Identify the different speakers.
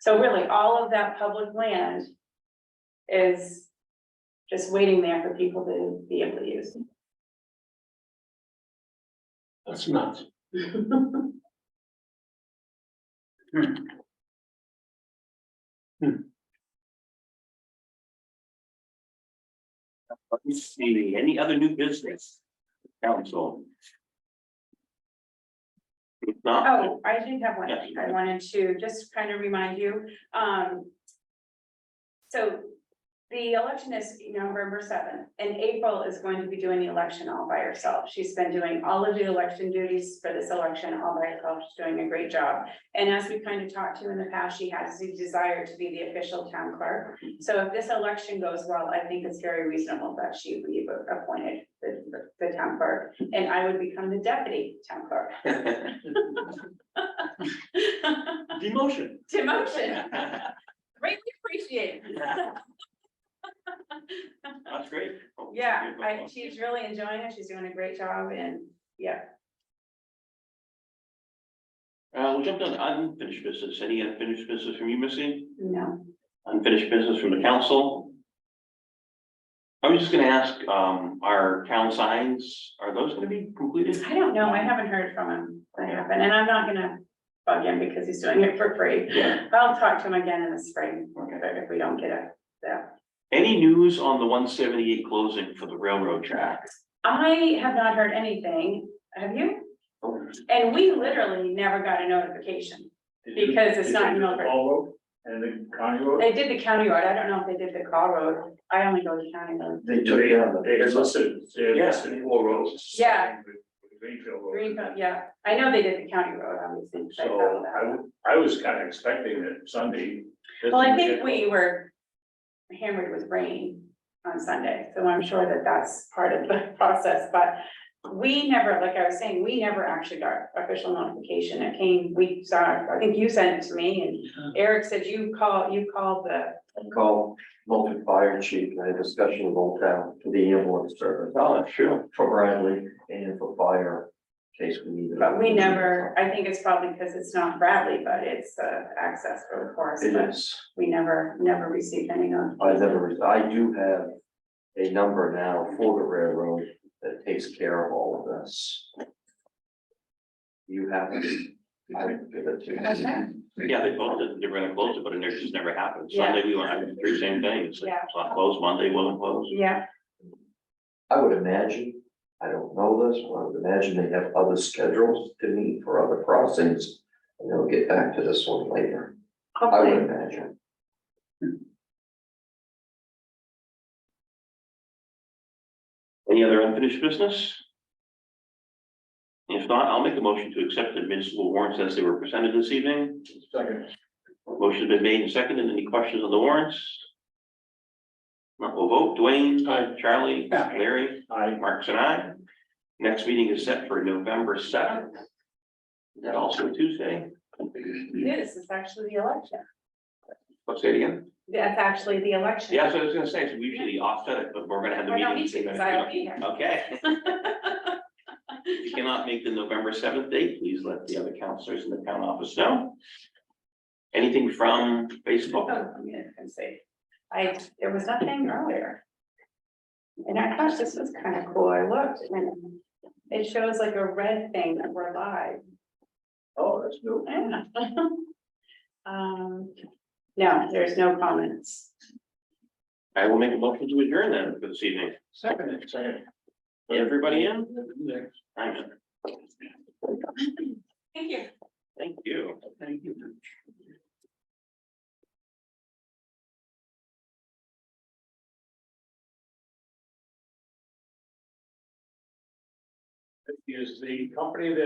Speaker 1: So really, all of that public land is just waiting there for people to be able to use.
Speaker 2: That's nuts. Let me see, any other new business? Council. If not,
Speaker 1: Oh, I did have one thing I wanted to just kind of remind you, um. So the election is November seventh, and April is going to be doing the election all by herself. She's been doing all of the election duties for this election all by herself. She's doing a great job. And as we kind of talked to in the past, she has the desire to be the official town clerk. So if this election goes well, I think it's very reasonable that she be appointed the, the- the town clerk, and I would become the deputy town clerk.
Speaker 2: demotion.
Speaker 1: Demotion,
Speaker 2: That's
Speaker 1: greatly appreciated.
Speaker 2: great.
Speaker 1: Yeah, I, she's really enjoying it. She's doing a great job and, yeah,
Speaker 2: Uh, we jumped on unfinished business. Any unfinished business from you, Missy?
Speaker 1: no,
Speaker 2: unfinished business from the council. I was just gonna ask, um, our town signs, are those gonna be completed?
Speaker 1: I don't know. I haven't heard from him what happened and I'm not gonna bug him because he's doing it for free.
Speaker 2: Yeah,
Speaker 1: I'll talk to him again in the spring
Speaker 2: okay.
Speaker 1: if we don't get it. So
Speaker 2: Any news on the one seventy-eight closing for the railroad track?
Speaker 1: I have not heard anything. Have you? And we literally never got a notification. Because it's not in Milford.
Speaker 3: All road and the county road.
Speaker 1: They did the county road. I don't know if they did the call road. I only go to county road.
Speaker 3: They took it on the. They listed, they
Speaker 2: Yeah.
Speaker 3: listed all roads.
Speaker 1: Yeah.
Speaker 3: Greenfield Road.
Speaker 1: Greenfield, yeah. I know they did the county road, obviously. 'cause I followed
Speaker 3: So
Speaker 1: that.
Speaker 3: I, w- I was kind of expecting that Sunday. this
Speaker 1: Well, I
Speaker 3: would
Speaker 1: think
Speaker 3: get-
Speaker 1: we were hammered with rain on Sunday, so I'm sure that that's part of the process, but we never, like I was saying, we never actually got official notification. It came, we saw, I think you sent it to me
Speaker 4: Uh-huh.
Speaker 1: and Eric said you call, you called the,
Speaker 4: and called Moulton Fire Chief and had a discussion with Old Town for the ambulance service.
Speaker 2: Oh, that's true.
Speaker 4: For Bradley and for fire, in case we needed.
Speaker 1: but we never, I think it's probably because it's not Bradley, but it's uh access for the forest,
Speaker 4: It
Speaker 1: but
Speaker 4: is,
Speaker 1: we never, never received any
Speaker 4: I
Speaker 1: notification.
Speaker 4: never, I do have a number now for the railroad that takes care of all of this. You have, it. I would give it to you.
Speaker 1: Okay.
Speaker 2: Yeah, they both did, they were gonna close it, but it never- just never happened.
Speaker 1: Yeah.
Speaker 2: Sunday, we went, I did the same thing. It's like,
Speaker 1: Yeah.
Speaker 2: it's not closed, Monday wasn't closed.
Speaker 1: Yeah,
Speaker 4: I would imagine, I don't know this, but I would imagine they have other schedules to meet for other crossings. And they'll get back to this one later, I would
Speaker 1: hopefully,
Speaker 4: imagine.
Speaker 2: Any other unfinished business? If not, I'll make a motion to accept the municipal warrants as they were presented this evening.
Speaker 3: Second.
Speaker 2: Motion's been made and seconded. Any questions on the warrants? Not will vote. Dwayne.
Speaker 3: Aye.
Speaker 2: Charlie.
Speaker 3: Aye.
Speaker 2: Larry.
Speaker 3: I,
Speaker 2: Marks and I. Next meeting is set for November seventh. That also Tuesday.
Speaker 1: this is actually the election.
Speaker 2: Let's say it again.
Speaker 1: That's actually the election.
Speaker 2: Yeah, so I was gonna say, so we usually offset it, but we're gonna have the
Speaker 1: Well, no, me
Speaker 2: meeting. the same
Speaker 1: too, 'cause
Speaker 2: night.
Speaker 1: I will be here.
Speaker 2: Okay. If you cannot make the November seventh date, please let the other counselors in the town office know. Anything from
Speaker 1: Oh,
Speaker 2: Facebook?
Speaker 1: I'm gonna come see. I, there was nothing earlier. And I thought this was kind of cool. I looked and it shows like a red thing that we're live.
Speaker 3: oh, that's new.
Speaker 1: Yeah. Um, no, there's no comments.
Speaker 2: I will make a motion to adjourn then for this evening.
Speaker 3: Second, second.
Speaker 2: Everybody in? I'm in.
Speaker 1: Thank you.
Speaker 2: Thank you. Thank you.
Speaker 3: Is the company that